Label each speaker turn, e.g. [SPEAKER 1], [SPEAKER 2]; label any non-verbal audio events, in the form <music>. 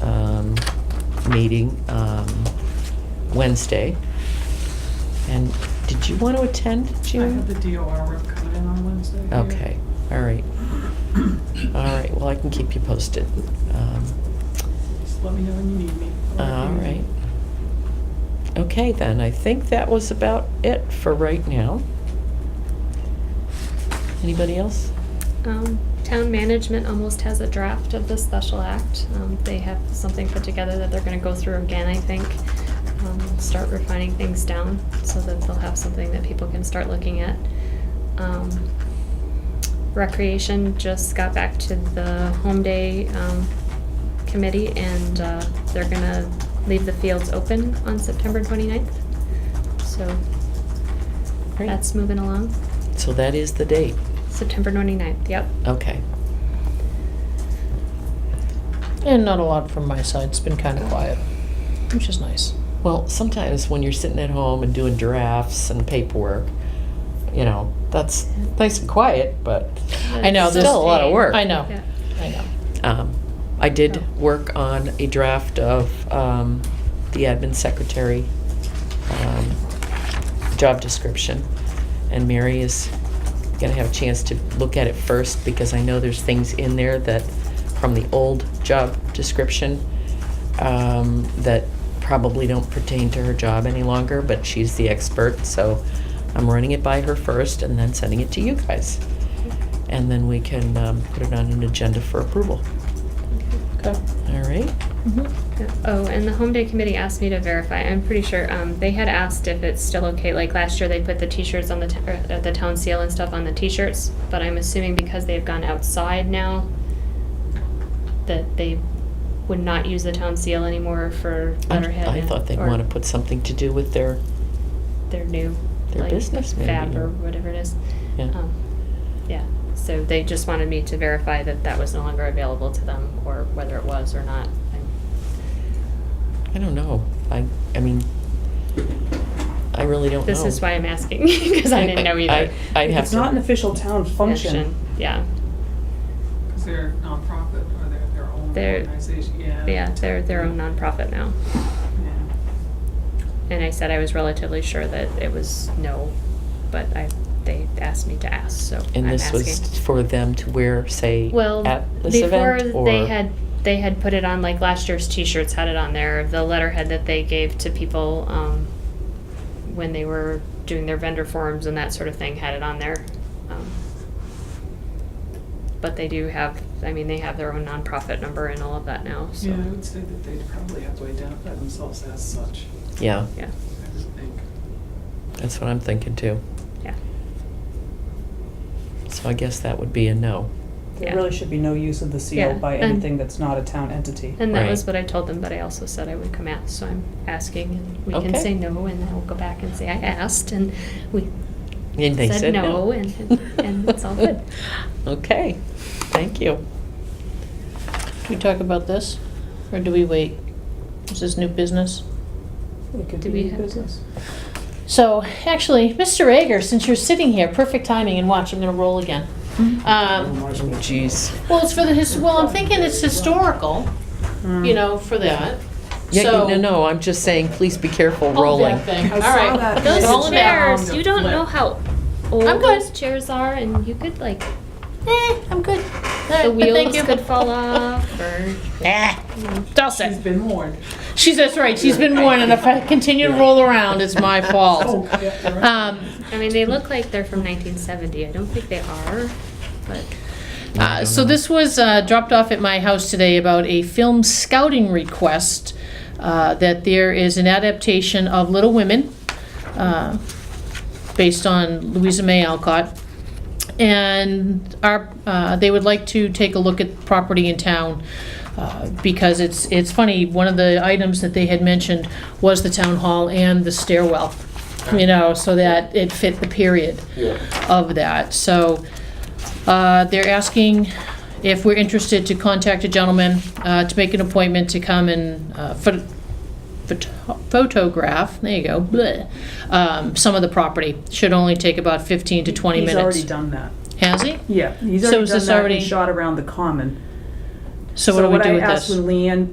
[SPEAKER 1] um, meeting um, Wednesday. And did you want to attend,
[SPEAKER 2] I
[SPEAKER 1] June?
[SPEAKER 2] have the DOR rep coming in on Wednesday. yeah.
[SPEAKER 1] Okay, all right. All right, well, I can keep you posted. Um,
[SPEAKER 2] Just let me know when you need me. I'll let
[SPEAKER 1] All
[SPEAKER 2] you know.
[SPEAKER 1] right. Okay, then, I think that was about it for right now. Anybody else?
[SPEAKER 3] Um, town management almost has a draft of the special act. Um, they have something put together that they're gonna go through again, I think. Um, start refining things down so that they'll have something that people can start looking at. Um, recreation just got back to the home day, um, committee and, uh, they're gonna leave the fields open on September 29th. So
[SPEAKER 1] Great.
[SPEAKER 3] that's moving along.
[SPEAKER 1] So that is the date.
[SPEAKER 3] September 29th, yep.
[SPEAKER 1] Okay.
[SPEAKER 4] And not a lot from my side. It's been kind of quiet, which is nice.
[SPEAKER 1] Well, sometimes when you're sitting at home and doing drafts and paperwork, you know, that's nice and quiet, but
[SPEAKER 4] I know,
[SPEAKER 1] it's
[SPEAKER 4] there's-
[SPEAKER 1] still a lot of work.
[SPEAKER 4] I know.
[SPEAKER 3] Yeah.
[SPEAKER 4] I know.
[SPEAKER 1] Um, I did
[SPEAKER 3] Oh.
[SPEAKER 1] work on a draft of um, the admin secretary um, job description, and Mary is going to have a chance to look at it first because I know there's things in there that from the old job description um, that probably don't pertain to her job any longer, but she's the expert, so I'm running it by her first and then sending it to you guys. And then we can um, put it on an agenda for approval.
[SPEAKER 4] Okay.
[SPEAKER 1] All right.
[SPEAKER 3] Oh, and the home day committee asked me to verify. I'm pretty sure um, they had asked if it's still okay. Like last year, they put the T-shirts on the t- or, uh, the town seal and stuff on the T-shirts. But I'm assuming because they've gone outside now, that they would not use the town seal anymore for
[SPEAKER 1] I-
[SPEAKER 3] letterhead.
[SPEAKER 1] I
[SPEAKER 3] and-
[SPEAKER 1] thought they'd
[SPEAKER 3] or
[SPEAKER 1] want to put something to do with their,
[SPEAKER 3] their new
[SPEAKER 1] their
[SPEAKER 3] like,
[SPEAKER 1] business maybe.
[SPEAKER 3] fab or whatever it is.
[SPEAKER 1] Yeah.
[SPEAKER 3] Um, yeah. So they just wanted me to verify that that was no longer available to them, or whether it was or not.
[SPEAKER 1] I don't know. I, I mean, I really don't know.
[SPEAKER 3] This is why I'm asking, <laughs> because I didn't know either.
[SPEAKER 1] Oh, I- I'd have
[SPEAKER 5] It's
[SPEAKER 1] to-
[SPEAKER 5] not an official town function.
[SPEAKER 3] Yeah,
[SPEAKER 2] Because they're nonprofit or they're their own
[SPEAKER 3] They're-
[SPEAKER 2] organization, yeah.
[SPEAKER 3] yeah, they're their own nonprofit now.
[SPEAKER 2] Yeah.
[SPEAKER 3] And I said I was relatively sure that it was no, but I, they asked me to ask, so I'm
[SPEAKER 1] And this was
[SPEAKER 3] asking.
[SPEAKER 1] for them to wear, say,
[SPEAKER 3] Well,
[SPEAKER 1] at this
[SPEAKER 3] before
[SPEAKER 1] event? or-
[SPEAKER 3] they had, they had put it on, like last year's T-shirts had it on there, the letterhead that they gave to people, um, when they were doing their vendor forms and that sort of thing had it on there. Um, But they do have, I mean, they have their own nonprofit number and all of that now, so.
[SPEAKER 2] Yeah, I would say that they'd probably have to identify themselves as such,
[SPEAKER 1] Yeah,
[SPEAKER 3] Yeah,
[SPEAKER 2] I would think.
[SPEAKER 1] that's what I'm thinking too.
[SPEAKER 3] yeah.
[SPEAKER 1] So I guess that would be a no.
[SPEAKER 3] Yeah.
[SPEAKER 5] There really should be no use of the
[SPEAKER 3] Yeah,
[SPEAKER 5] seal by
[SPEAKER 3] and-
[SPEAKER 5] anything that's not a town entity.
[SPEAKER 3] And that was
[SPEAKER 1] Right.
[SPEAKER 3] what I told them, but I also said I would come out, so I'm asking, and we can
[SPEAKER 1] Okay.
[SPEAKER 3] say no, and then we'll go back and say I asked, and we
[SPEAKER 1] And they
[SPEAKER 3] said
[SPEAKER 1] said
[SPEAKER 3] no,
[SPEAKER 1] no.
[SPEAKER 3] and, and it's all good.
[SPEAKER 1] <laughs> Okay, thank you.
[SPEAKER 4] Do we talk about this, or do we wait? Is this new business?
[SPEAKER 5] It could
[SPEAKER 3] Do
[SPEAKER 5] be
[SPEAKER 3] we have to-
[SPEAKER 5] business.
[SPEAKER 4] So, actually, Mr. Ager, since you're sitting here, perfect timing, and watch, I'm gonna roll again. Um,
[SPEAKER 1] Oh, jeez.
[SPEAKER 4] well, it's for the his. Well, I'm thinking it's historical. You know, for that.
[SPEAKER 1] Yeah,
[SPEAKER 4] so,
[SPEAKER 1] no, no, I'm just saying, please be careful
[SPEAKER 3] Oh,
[SPEAKER 4] Hold
[SPEAKER 1] rolling.
[SPEAKER 4] that thing.
[SPEAKER 5] I
[SPEAKER 4] All
[SPEAKER 5] saw
[SPEAKER 4] right,
[SPEAKER 5] that.
[SPEAKER 4] those
[SPEAKER 5] Those
[SPEAKER 4] rolling back.
[SPEAKER 2] chairs, you don't know
[SPEAKER 3] how
[SPEAKER 4] I'm good. those
[SPEAKER 3] chairs are, and you could like,
[SPEAKER 4] Eh, I'm good.
[SPEAKER 3] the
[SPEAKER 4] thank
[SPEAKER 3] wheels
[SPEAKER 4] you.
[SPEAKER 3] could fall
[SPEAKER 4] <laughs>
[SPEAKER 3] off, or.
[SPEAKER 4] Ah, Dustin.
[SPEAKER 2] She's been warned.
[SPEAKER 4] She's that's right. She's been warned, and if I continue to roll around, it's my
[SPEAKER 2] Oh,
[SPEAKER 4] fault.
[SPEAKER 2] yeah, you're right.
[SPEAKER 4] Um,
[SPEAKER 3] I mean, they look like they're from nineteen seventy, I don't think they are, but.
[SPEAKER 4] uh, so this was uh, dropped off at my house today about a film scouting request uh, that there is an adaptation of Little Women, uh, based on Louisa May Alcott, and our uh, they would like to take a look at property in town. Uh, because it's it's funny, one of the items that they had mentioned was the town hall and the stairwell, you know, so that it fit the period of that. So uh, they're asking if we're interested to contact a gentleman uh, to make an appointment to come and uh, phot- phot- photograph, there you go, bleh, um, some of the property. Should only take about 15 <laughs> to 20
[SPEAKER 5] He's already
[SPEAKER 4] minutes.
[SPEAKER 5] done that.
[SPEAKER 4] Has he?
[SPEAKER 5] Yeah, he's
[SPEAKER 4] So
[SPEAKER 5] already
[SPEAKER 4] is
[SPEAKER 5] done
[SPEAKER 4] this
[SPEAKER 5] that
[SPEAKER 4] already-
[SPEAKER 5] and shot around the common.
[SPEAKER 4] So what do we do
[SPEAKER 5] I
[SPEAKER 4] with
[SPEAKER 5] asked
[SPEAKER 4] this?
[SPEAKER 5] when Leanne